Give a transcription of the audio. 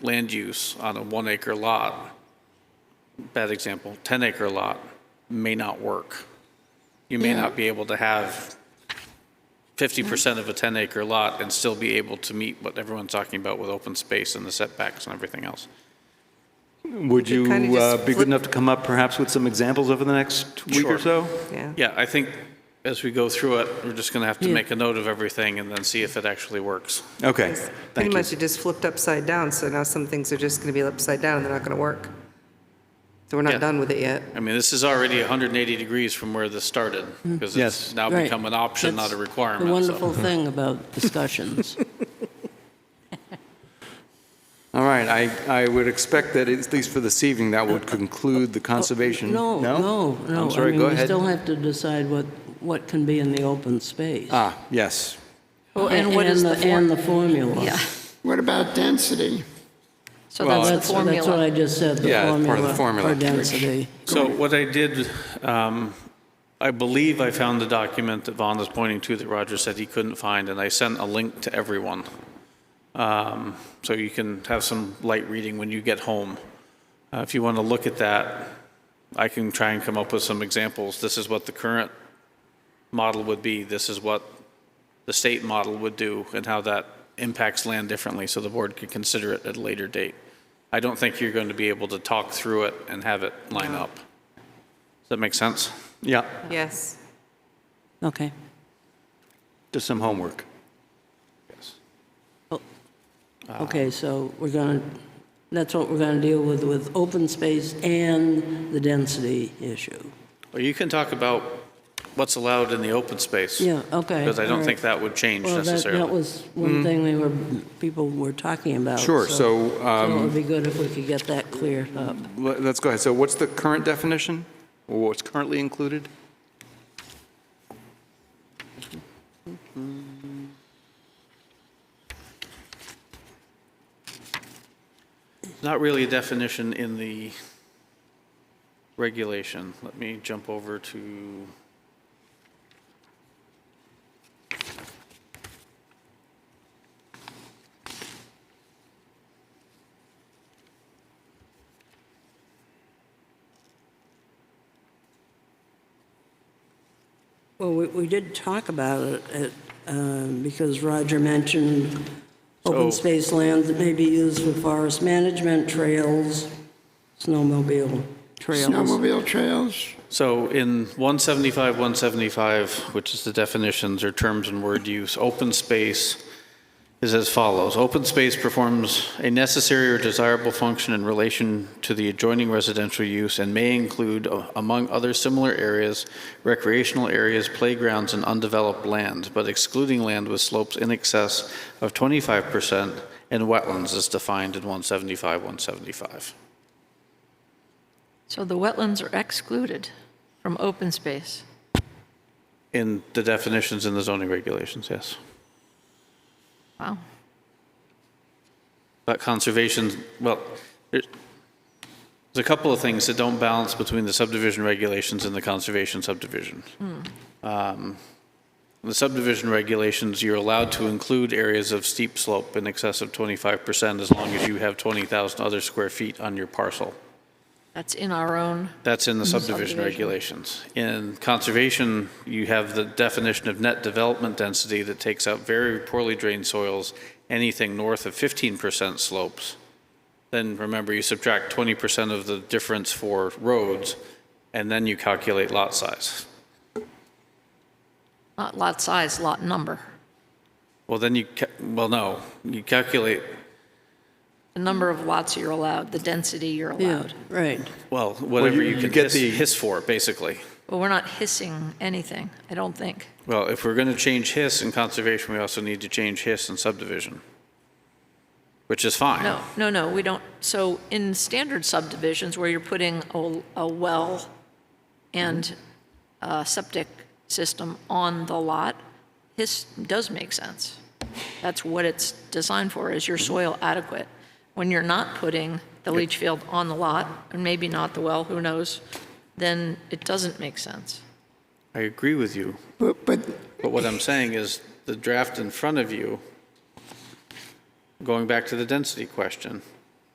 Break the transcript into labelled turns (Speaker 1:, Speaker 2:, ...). Speaker 1: land use on a one acre lot, bad example, 10 acre lot may not work. You may not be able to have 50% of a 10 acre lot and still be able to meet what everyone's talking about with open space and the setbacks and everything else.
Speaker 2: Would you
Speaker 3: kinda just
Speaker 2: uh, be
Speaker 3: flip-
Speaker 2: good enough to come up perhaps with some examples over the next week or
Speaker 1: Sure.
Speaker 2: so?
Speaker 3: Yeah.
Speaker 1: Yeah, I think as we go through it, we're just going to have to make a note of everything and then see if it actually works.
Speaker 2: Okay,
Speaker 3: It's Pretty
Speaker 2: thank you.
Speaker 3: much it just flipped upside down, so now some things are just going to be upside down, and they're not going to work. So we're
Speaker 1: Yeah.
Speaker 3: not done with it yet.
Speaker 1: I mean, this is already 180 degrees from where this started because it's
Speaker 2: Yes.
Speaker 1: now
Speaker 4: Right.
Speaker 1: become an option, not a
Speaker 4: That's
Speaker 1: requirement.
Speaker 4: The
Speaker 1: so-
Speaker 4: wonderful thing about discussions.
Speaker 2: All right, I, I would expect that, at least for this evening, that would conclude the conservation.
Speaker 4: Oh, No, no, no.
Speaker 2: I'm sorry, go
Speaker 4: I mean, we
Speaker 2: ahead.
Speaker 4: still have to decide what, what can be in the open space.
Speaker 2: Ah, yes.
Speaker 5: Well, and what is the
Speaker 4: the- And
Speaker 5: form?
Speaker 4: the formula.
Speaker 5: Yeah,
Speaker 6: What about density?
Speaker 5: so
Speaker 2: Well,
Speaker 5: that's the
Speaker 4: That's, that's what I
Speaker 5: formula.
Speaker 4: just said, the
Speaker 2: Yeah, it's part of the
Speaker 4: formula
Speaker 2: formula.
Speaker 4: for density.
Speaker 1: So what I did, um, I believe I found the document that Vaughn is pointing to that Roger said he couldn't find, and I sent a link to everyone. Um, So you can have some light reading when you get home. Uh, If you want to look at that, I can try and come up with some examples. This is what the current model would be, this is what the state model would do, and how that impacts land differently, so the board could consider it at a later date. I don't think you're going to be able to talk through it and have it line up. Does that make sense?
Speaker 2: Yeah,
Speaker 3: Yes.
Speaker 4: Okay.
Speaker 2: just some homework.
Speaker 4: Ah. Okay, so we're going to, that's what we're going to deal with, with open space and the density issue.
Speaker 1: Or you can talk about what's allowed in the open space.
Speaker 4: Yeah, okay.
Speaker 1: Because I
Speaker 4: all
Speaker 1: don't
Speaker 4: right.
Speaker 1: think that would change
Speaker 4: Well, that, that
Speaker 1: necessarily.
Speaker 4: was one thing they were, people were talking about.
Speaker 2: Sure, so,
Speaker 4: So it would be good if we could get that clear up.
Speaker 2: Le- Let's go ahead. So what's the current definition? Or What's currently included?
Speaker 1: Not really a definition in the regulation. Let me jump over to,
Speaker 4: Well, we, we did talk about it, at, um, because Roger mentioned
Speaker 1: So-
Speaker 4: open space land that may be used for forest management, trails, snowmobile trails.
Speaker 6: Snowmobile trails?
Speaker 1: so in 175, 175, which is the definitions or terms and word use, open space is as follows. Open space performs a necessary or desirable function in relation to the adjoining residential use and may include, a- among other similar areas, recreational areas, playgrounds, and undeveloped land, but excluding land with slopes in excess of 25% and wetlands as defined in 175, 175.
Speaker 5: So the wetlands are excluded from open space.
Speaker 1: In the definitions in the zoning regulations, yes.
Speaker 5: Wow.
Speaker 1: But conservation, well, there's there's a couple of things that don't balance between the subdivision regulations and the conservation subdivision. Um, The subdivision regulations, you're allowed to include areas of steep slope in excess of 25% as long as you have 20,000 other square feet on your parcel.
Speaker 5: That's in our own,
Speaker 1: That's in the subdivision
Speaker 5: subdivision.
Speaker 1: regulations. In conservation, you have the definition of net development density that takes out very poorly drained soils, anything north of 15% slopes. Then remember, you subtract 20% of the difference for roads, and then you calculate lot size.
Speaker 5: not lot size, lot number.
Speaker 1: Well, then you, ca- well, no, you calculate,
Speaker 5: The number of lots you're allowed, the density you're
Speaker 4: Yeah,
Speaker 5: allowed.
Speaker 4: right.
Speaker 1: well, whatever
Speaker 2: you-
Speaker 1: you
Speaker 2: you
Speaker 1: can
Speaker 2: get
Speaker 1: hiss
Speaker 2: the-
Speaker 1: hiss for, basically.
Speaker 5: But we're not hissing anything, I don't think.
Speaker 1: Well, if we're going to change hiss in conservation, we also need to change hiss in subdivision, which is fine.
Speaker 5: No, no, no, we don't. So in standard subdivisions where you're putting a, a well and a septic system on the lot, this does make sense. That's what it's designed for, is your soil adequate. When you're not putting the leach field on the lot, and maybe not the well, who knows, then it doesn't make sense.
Speaker 1: I agree with you,
Speaker 6: But, but
Speaker 1: But what I'm saying is, the draft in front of you, going back to the density question,